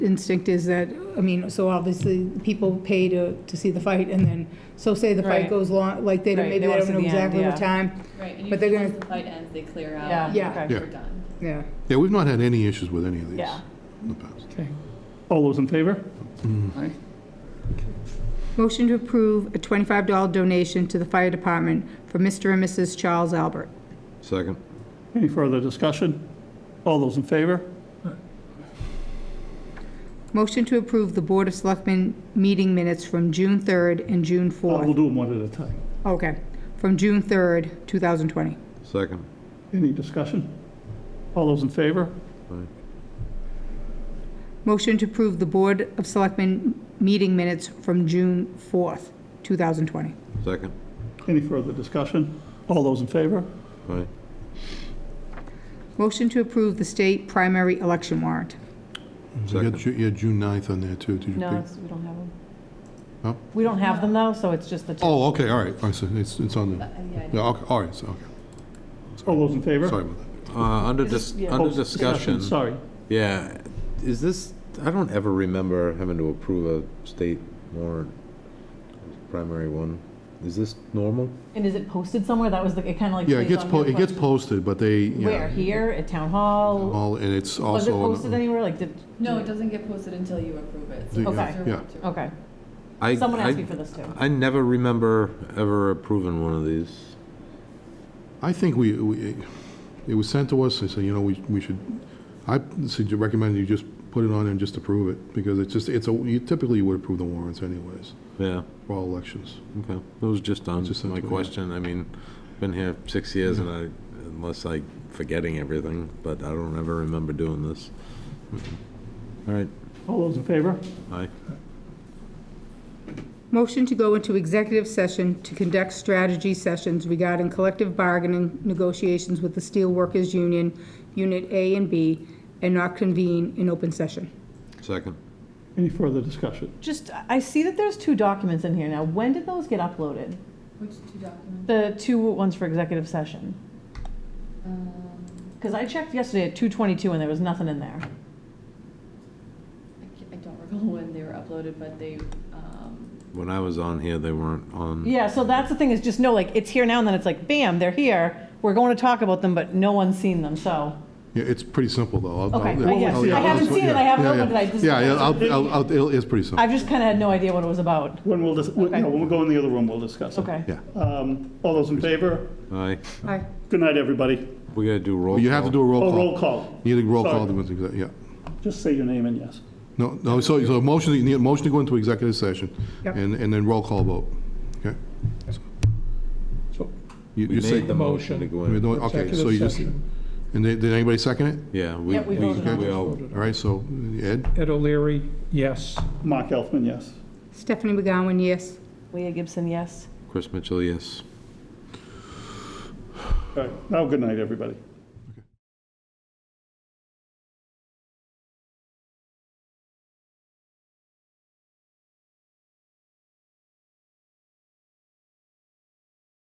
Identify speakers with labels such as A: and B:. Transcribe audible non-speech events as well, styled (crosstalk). A: instinct is that, I mean, so obviously, people pay to, to see the fight, and then, so say the fight
B: Right.
A: goes long, like, they don't,
B: Right,
A: maybe
B: they
A: they
B: wanna
A: don't know
B: see the end,
A: exactly
B: yeah.
A: what time,
C: Right, and
A: But they're
C: usually
A: gonna-
C: once the fight ends, they clear out.
B: Yeah.
C: and
A: Yeah.
B: okay.
C: We're done.
A: yeah.
D: Yeah, we've not had any issues with any of these
B: Yeah.
D: in the past.
E: Okay. All those in favor? Aye.
A: Motion to approve a $25 donation to the fire department for Mr. and Mrs. Charles Albert.
F: Second.
E: Any further discussion? All those in favor?
A: Motion to approve the Board of Selectmen meeting minutes from June 3rd and June
E: Uh, We'll
A: 4th.
E: do them one at a time.
A: Okay, from June 3rd, 2020.
F: Second.
E: Any discussion? All those in favor?
A: Motion to approve the Board of Selectmen meeting minutes from June 4th, 2020.
F: Second.
E: Any further discussion? All those in favor?
F: Aye.
A: Motion to approve the state primary election warrant.
D: You
F: Second.
D: had, Ju- you had June 9th on there too, did you?
B: No,
D: pick-
B: it's- we don't have them.
D: No?
B: We don't have them though, so it's just the two.
D: Oh, okay, all right, I see, it's, it's on
C: But,
D: the,
C: uh, yeah,
D: yeah, okay, all right, so, okay,
E: All those in favor?
D: sorry about that.
F: Uh, Under dis-
B: yeah.
F: under
E: Oh,
F: discussion,
E: Sorry.
F: yeah, is this, I don't ever remember having to approve a state warrant, primary one. Is this normal?
B: And is it posted somewhere? That was the, it kind of like.
D: Yeah, it
B: plays
D: gets,
B: on
D: po-
B: your
D: it gets
B: question.
D: posted, but they, yeah.
B: Where, here, at town hall?
D: All, and it's
B: Was it
D: also.
B: posted anywhere, like, did?
C: No, it doesn't get posted until you approve it. so
D: Yeah,
C: it's
B: Okay.
C: your
D: yeah.
C: vote to approve.
B: Okay,
F: I-
B: someone
F: I-
B: asked me for this too.
F: I never remember ever approving one of these.
D: I think we, we, it was sent to us, I said, you know, we, we should, I sug- recommend you just put it on and just approve it, because it's just, it's a, you typically you would approve the warrants anyways,
F: Yeah,
D: for all elections.
F: okay. It was just on
D: Just
F: my
D: something, yeah.
F: question. I mean, been here six years and I, unless I forgetting everything, but I don't ever remember doing this. Mm-hmm. All right,
E: All those in favor?
F: aye.
A: Motion to go into executive session to conduct strategy sessions regarding collective bargaining negotiations with the Steel Workers Union, Unit A and B, and not convene in open session.
F: Second.
E: Any further discussion?
B: Just, I see that there's two documents in here now. When did those get uploaded?
C: Which two documents?
B: The two ones for executive session?
C: Um,
B: Because I checked yesterday at 2:22 and there was nothing in there.
C: I ca- I don't recall (laughs) when they were uploaded, but they, um,
F: When I was on here, they weren't on.
B: Yeah, so that's the thing, is just no, like, it's here now, and then it's like, bam, they're here, we're going to talk about them, but no one's seen them, so.
D: Yeah, it's pretty simple, though. I'll-
B: Okay,
D: I'll-
B: I guess.
D: I'll- yeah,
B: I
D: I'll-
B: haven't seen it, I haven't
D: yeah,
B: opened
D: yeah.
B: it, I just-
D: Yeah, yeah, I'll- I'll- I'll- it'll- it's pretty simple,
B: I've just kind of had no idea what it was about.
E: When we'll, dis- we-
B: Okay.
E: no, when we go in the other room, we'll discuss it.
B: Okay.
D: yeah.
E: Um, All those in favor?
F: Aye.
A: Aye.
E: Good night, everybody.
F: We gotta do roll.
D: But You have to do a roll
E: Oh,
D: call.
E: roll call.
D: You need a roll call,
E: Sorry.
D: to go into exec- yeah.
E: Just say your name and yes.
D: No, no, so, so a motion, you need a motion to go into executive session,
A: Yep.
D: and, and then roll call vote, okay?
G: So
D: You
F: We
D: you say-
F: made the motion to go
D: we're
F: in.
D: doing- Okay, so
G: executive
D: you just,
G: session,
D: and did, did anybody second it?
F: Yeah, we,
B: Yeah, we
F: we
B: voted on
F: we
B: it.
F: all,
D: All right, so Ed,
G: Ed O'Leary, yes.
E: Mark Elfman, yes.
A: Stephanie McGowan, yes.
B: Leah Gibson, yes?
F: Chris Mitchell, yes.
E: All right, now, good night, everybody.